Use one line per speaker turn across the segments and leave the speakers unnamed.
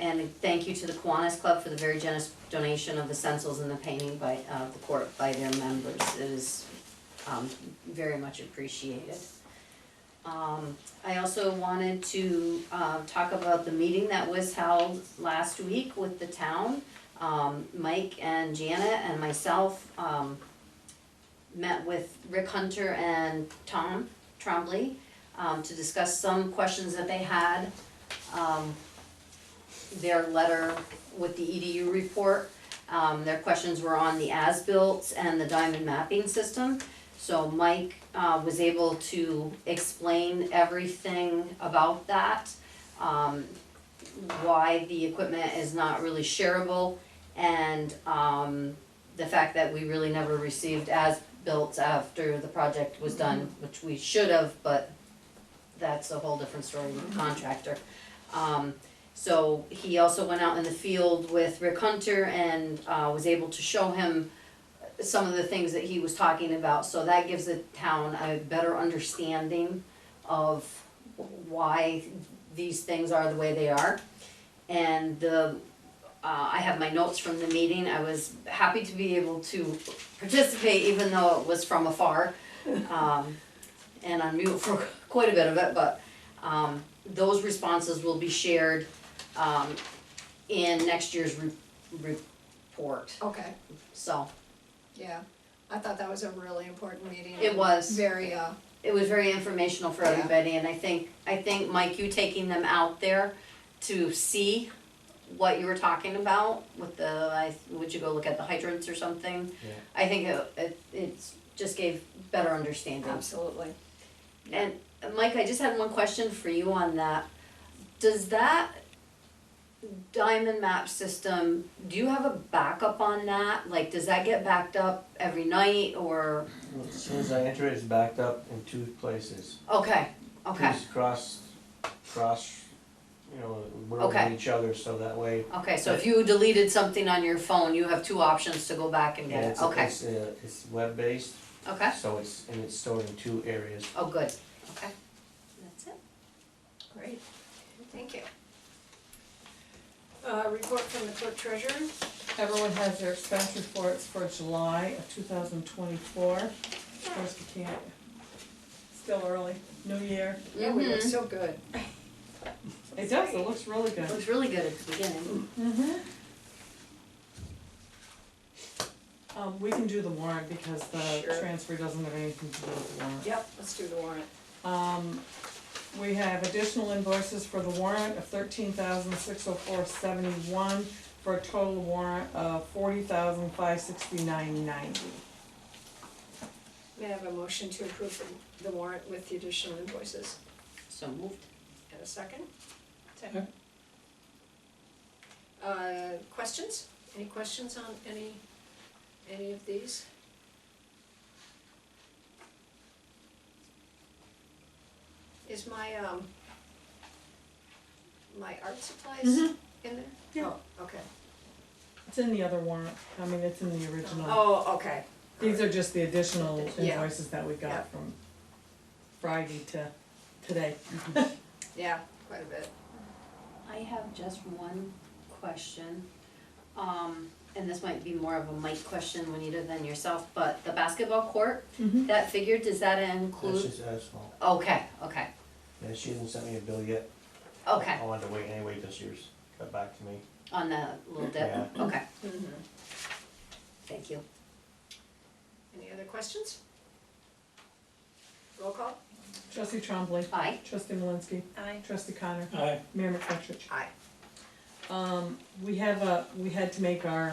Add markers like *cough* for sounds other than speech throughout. And thank you to the Kiwanis Club for the very generous donation of the stencils and the painting by, uh, the court, by their members. It is, um, very much appreciated. Um, I also wanted to, uh, talk about the meeting that was held last week with the town. Um, Mike and Janet and myself, um, met with Rick Hunter and Tom Trombley, um, to discuss some questions that they had. Um, their letter with the EDU report. Um, their questions were on the as-built and the diamond mapping system. So Mike, uh, was able to explain everything about that. Um, why the equipment is not really shareable and, um, the fact that we really never received as-built after the project was done, which we should have, but that's a whole different story with the contractor. Um, so he also went out in the field with Rick Hunter and uh, was able to show him some of the things that he was talking about. So that gives the town a better understanding of why these things are the way they are. And the, uh, I have my notes from the meeting. I was happy to be able to participate even though it was from afar. Um, and on mute for *laughs* quite a bit of it, but um, those responses will be shared um, in next year's re- report,
Okay,
so
yeah, I thought that was a really important meeting.
It was.
Very, uh,
it was very informational for
Yeah.
everybody, and I think, I think, Mike, you taking them out there to see what you were talking about with the, I, would you go look at the hydrants or something?
Yeah.
I think it, it, it's, just gave better understanding.
absolutely.
And Mike, I just had one question for you on that. Does that diamond map system, do you have a backup on that? Like, does that get backed up every night or,
Well, As soon as I enter it, it's backed up in two places.
okay, okay,
It's cross, cross, you know, we're over
Okay.
each other, so that way.
okay, so if you deleted something on your phone, you have two options to go back and get
and
it,
it's-
okay,
It's, uh, it's web-based,
okay?
so it's, and it's stored in two areas.
Oh, good, okay. That's it.
Great, thank you.
Uh, report from the clerk treasurer.
Everyone has their expense reports for July of two thousand twenty-four. Of course, we can't, still early, new year.
Yeah, we look
Mhm.
so good.
It does, it looks really
It
good.
Looks really good at the beginning.
Mm-hmm. Um, we can do the warrant because the
Sure.
transfer doesn't have anything to do with the warrant.
Yep, let's do the warrant.
Um, we have additional invoices for the warrant of thirteen thousand six oh four seventy-one for a total warrant of forty thousand five sixty-nine ninety.
May I have a motion to approve the- the warrant with the additional invoices?
So moved.
And a second? Second. Uh, questions? Any questions on any, any of these? Is my, um, my art supplies in
Mhm.
there?
Yeah.
Oh, okay.
It's in the other warrant, I mean, it's in the original.
Oh, okay.
These are just the additional
Yeah.
invoices that we
Yeah.
got from Friday to today.
Yeah, quite a bit.
I have just one question. Um, and this might be more of a Mike question, Juanita, than yourself, but the basketball court,
Mm-hmm.
that figure, does that
That's
include?
just asphalt.
Okay, okay,
Yeah, she hasn't sent me a bill yet.
okay,
I wanted to wait anyway till she was got back to me.
on the little dip,
Yeah.
okay,
Mm-hmm.
thank you.
Any other questions? Roll call?
Trustee Trombley,
Aye,
trustee Malinsky,
Aye.
trustee Connor. Mayor McFetrich.
Aye.
Um, we have a, we had to make our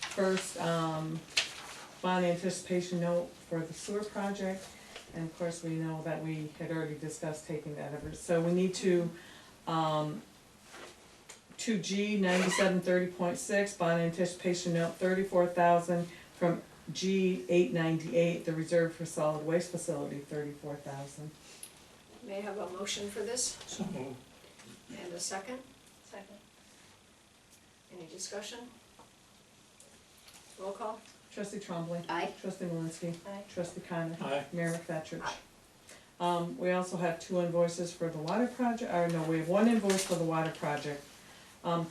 first, um, bond anticipation note for the sewer project. And of course, we know that we had already discussed taking that over, so we need to, um, two G ninety-seven thirty point six, bond anticipation note thirty-four thousand from G eight ninety-eight, the reserve for solid waste facility, thirty-four thousand.
May I have a motion for this? And a second? Second. Any discussion? Roll call?
Trustee Trombley.
aye,
Trustee Malinsky.
Aye.
Trustee Connor.
Aye.
Mayor McFetrich.
Aye.
Um, we also have two invoices for the water project, or no, we have one invoice for the water project. Um,